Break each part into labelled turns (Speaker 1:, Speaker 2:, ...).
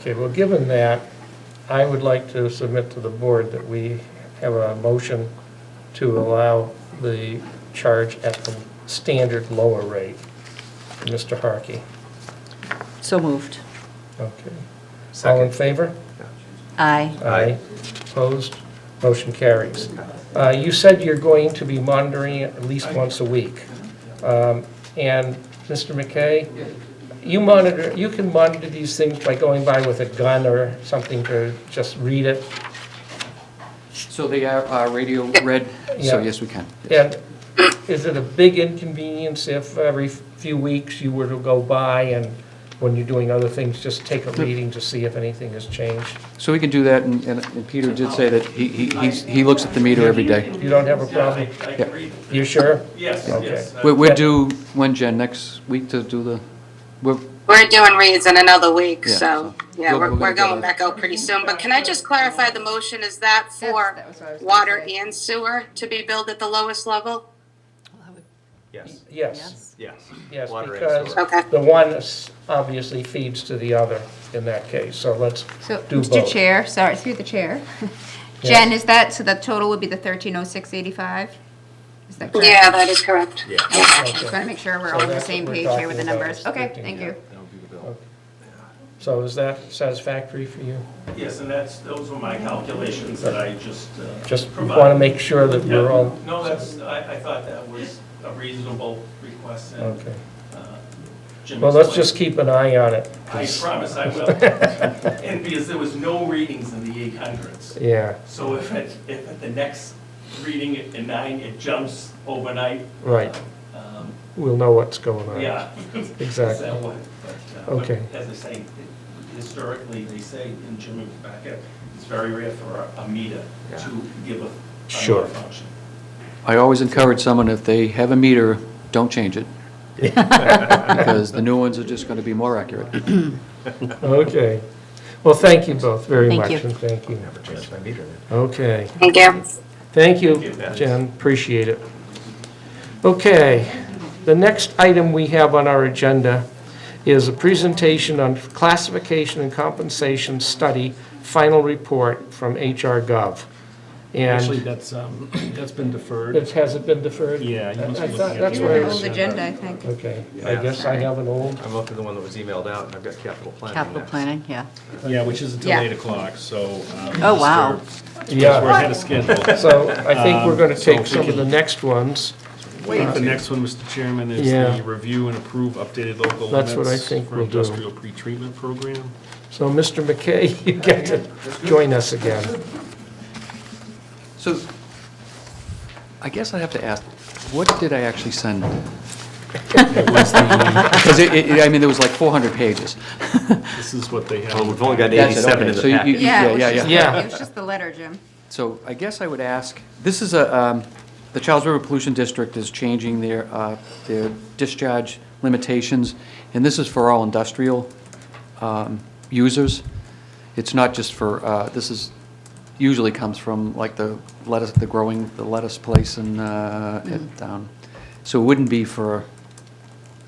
Speaker 1: Okay, well, given that, I would like to submit to the board that we have a motion to allow the charge at the standard lower rate. Mr. Harkey.
Speaker 2: So moved.
Speaker 1: Okay. All in
Speaker 3: Second.
Speaker 1: favor?
Speaker 2: Aye.
Speaker 3: Aye.
Speaker 1: Opposed? Motion carries. Uh, You said you're going to be monitoring it at least once a week. Um, And, Mr. McKay, you monitor, you can monitor these things by going by with a gun or something to just read it.
Speaker 4: So they are uh, radio red, so
Speaker 1: Yeah.
Speaker 4: yes, we can.
Speaker 1: And is it a big inconvenience if every few weeks you were to go by and when you're doing other things, just take a reading to see if anything has changed?
Speaker 4: So we can do that, and and- and Peter did say that he he he's- he looks at the meter every day.
Speaker 1: You don't have a problem?
Speaker 5: Yeah, I I
Speaker 4: Yeah.
Speaker 5: can read,
Speaker 1: You sure?
Speaker 5: yes,
Speaker 1: Okay.
Speaker 5: yes. I-
Speaker 4: We're we're due, when, Jen, next week to do the, we're
Speaker 6: We're doing reads in another week,
Speaker 4: Yeah,
Speaker 6: so,
Speaker 4: so
Speaker 6: yeah,
Speaker 4: we'll-
Speaker 6: we're,
Speaker 4: we'll
Speaker 6: we're
Speaker 4: get
Speaker 6: going
Speaker 4: that.
Speaker 6: back out pretty soon. But can I just clarify the motion? Is that for
Speaker 7: that was what I was gonna
Speaker 6: water
Speaker 7: say.
Speaker 6: and sewer to be billed at the lowest level?
Speaker 3: Yes,
Speaker 1: Yes.
Speaker 3: yes.
Speaker 1: Yes,
Speaker 3: Water and
Speaker 1: because
Speaker 3: sewer.
Speaker 6: Okay.
Speaker 1: the one is- obviously feeds to the other in that case, so let's
Speaker 7: So,
Speaker 1: do
Speaker 7: Mr.
Speaker 1: both.
Speaker 7: Chair, sorry, through the chair. Jen, is that, so the total would be the thirteen oh six eighty-five? Is that correct?
Speaker 6: Yeah, that is correct.
Speaker 3: Yeah.
Speaker 7: Okay, Just want to make sure we're
Speaker 1: So
Speaker 7: all on the
Speaker 1: that's
Speaker 7: same
Speaker 1: what we're
Speaker 7: page
Speaker 1: talking
Speaker 7: here with the
Speaker 1: about,
Speaker 7: numbers.
Speaker 1: is
Speaker 7: Okay,
Speaker 1: 13,
Speaker 7: thank
Speaker 1: yeah.
Speaker 7: you.
Speaker 1: So is that satisfactory for you?
Speaker 5: Yes, and that's, those were my calculations that I just. uh,
Speaker 1: Just want to
Speaker 5: provided.
Speaker 1: make sure that
Speaker 5: Yeah,
Speaker 1: we're all,
Speaker 5: No, that's, I, I thought that was a reasonable request and
Speaker 1: okay.
Speaker 5: uh, Jim.
Speaker 1: Well, let's
Speaker 5: explained.
Speaker 1: just keep an eye on it.
Speaker 5: I promise I will. And because there was no readings in the eight hundreds.
Speaker 1: Yeah,
Speaker 5: So if at, if at the next reading at the nine, it jumps overnight.
Speaker 1: Right.
Speaker 5: um,
Speaker 1: we'll know what's going on.
Speaker 5: Yeah. It's
Speaker 1: Exactly.
Speaker 5: that way, but, uh, but
Speaker 1: Okay.
Speaker 5: As I say, historically, they say, in Jim was back up, it's very rare for a- a meter to give a
Speaker 1: Sure.
Speaker 5: another function.
Speaker 4: I always encourage someone, if they have a meter, don't change it, because the new ones are just going to be more accurate.
Speaker 1: Okay. Well, thank you both very
Speaker 2: Thank
Speaker 1: much.
Speaker 2: you.
Speaker 1: and Thank you.
Speaker 3: Never changed my meter then.
Speaker 1: Okay.
Speaker 6: Thank you.
Speaker 1: Thank you,
Speaker 5: Thank you.
Speaker 1: Jen, appreciate it. Okay, the next item we have on our agenda is a presentation on classification and compensation study, final report from HR Gov.
Speaker 8: Actually,
Speaker 1: And
Speaker 8: that's, um, that's been deferred.
Speaker 1: it hasn't been deferred?
Speaker 8: Yeah, you must
Speaker 1: I
Speaker 8: be
Speaker 1: thought
Speaker 8: looking at.
Speaker 1: that's
Speaker 8: the
Speaker 1: where
Speaker 8: wrong
Speaker 1: it
Speaker 7: Old
Speaker 1: was.
Speaker 7: agenda, I think.
Speaker 1: Okay, I guess I have an old,
Speaker 3: I'm looking at the one that was emailed out, and I've got capital planning
Speaker 2: Capital
Speaker 3: next.
Speaker 2: planning, yeah.
Speaker 8: Yeah, which is until
Speaker 7: Yeah.
Speaker 8: eight o'clock, so. um,
Speaker 2: Oh, wow.
Speaker 8: That's where we're
Speaker 1: yeah.
Speaker 8: ahead of schedule.
Speaker 1: So I think we're going to
Speaker 8: Um, so
Speaker 1: take
Speaker 8: we
Speaker 1: some of
Speaker 8: can-
Speaker 1: the next ones.
Speaker 8: I think The next one, Mr. Chairman, is
Speaker 1: Yeah.
Speaker 8: the review and approve updated local
Speaker 1: That's
Speaker 8: limits.
Speaker 1: what I think
Speaker 8: for
Speaker 1: we'll do.
Speaker 8: Industrial pretreatment program.
Speaker 1: So, Mr. McKay, you get to join us again.
Speaker 4: So I guess I have to ask, what did I actually send? Because it, it- I mean, there was like 400 pages.
Speaker 8: This is what they have.
Speaker 3: Well, we've only got
Speaker 4: That's it,
Speaker 3: 87 in
Speaker 4: okay.
Speaker 3: the
Speaker 4: So you-
Speaker 3: packet.
Speaker 4: you-
Speaker 7: Yeah, it was
Speaker 4: yeah,
Speaker 7: just-
Speaker 1: yeah.
Speaker 7: it was just the letter, Jim.
Speaker 4: So I guess I would ask, this is a, um, the Charles River Pollution District is changing their, uh, their discharge limitations, and this is for all industrial um, users. It's not just for, uh, this is, usually comes from like the lettuce, the growing, the lettuce place and down. So it wouldn't be for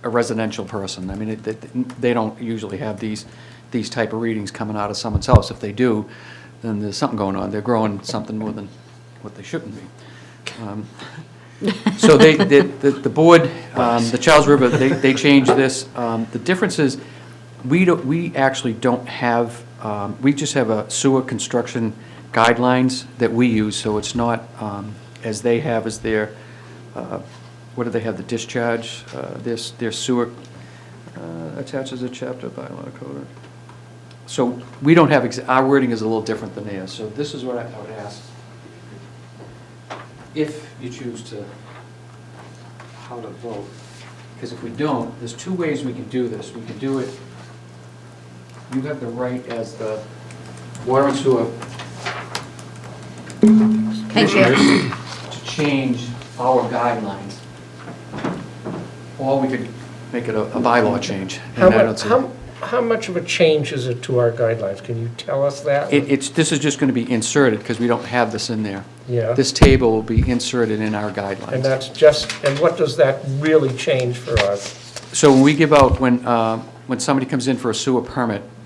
Speaker 4: a residential person. I mean, it- it- they don't usually have these, these type of readings coming out of someone's house. If they do, then there's something going on. They're growing something more than what they shouldn't be. Um, So they, the, the the board, um, the Charles River, they, they changed this. Um, The difference is, we don't, we actually don't have, um, we just have a sewer construction guidelines that we use, so it's not, um, as they have as their, uh, what do they have, the discharge, uh, their, s- their sewer uh, attaches a chapter by law code. So we don't have, ex- our wording is a little different than theirs, so this is what I I would ask. If you choose to, how to vote, because if we don't, there's two ways we can do this. We can do it, you have the right as the water and sewer
Speaker 7: Thank you.
Speaker 4: commissioners to change our guidelines. Or we could make it a a bylaw change. and
Speaker 1: How
Speaker 4: I don't
Speaker 1: much,
Speaker 4: see-
Speaker 1: how, how much of a change is it to our guidelines? Can you tell us that?
Speaker 4: It- It's, this is just going to be inserted because we don't have this in there.
Speaker 1: Yeah.
Speaker 4: This table will be inserted in our
Speaker 1: And
Speaker 4: guidelines.
Speaker 1: that's just, and what does that really change for us?
Speaker 4: So when we give out, when, uh, when somebody comes in for a sewer permit,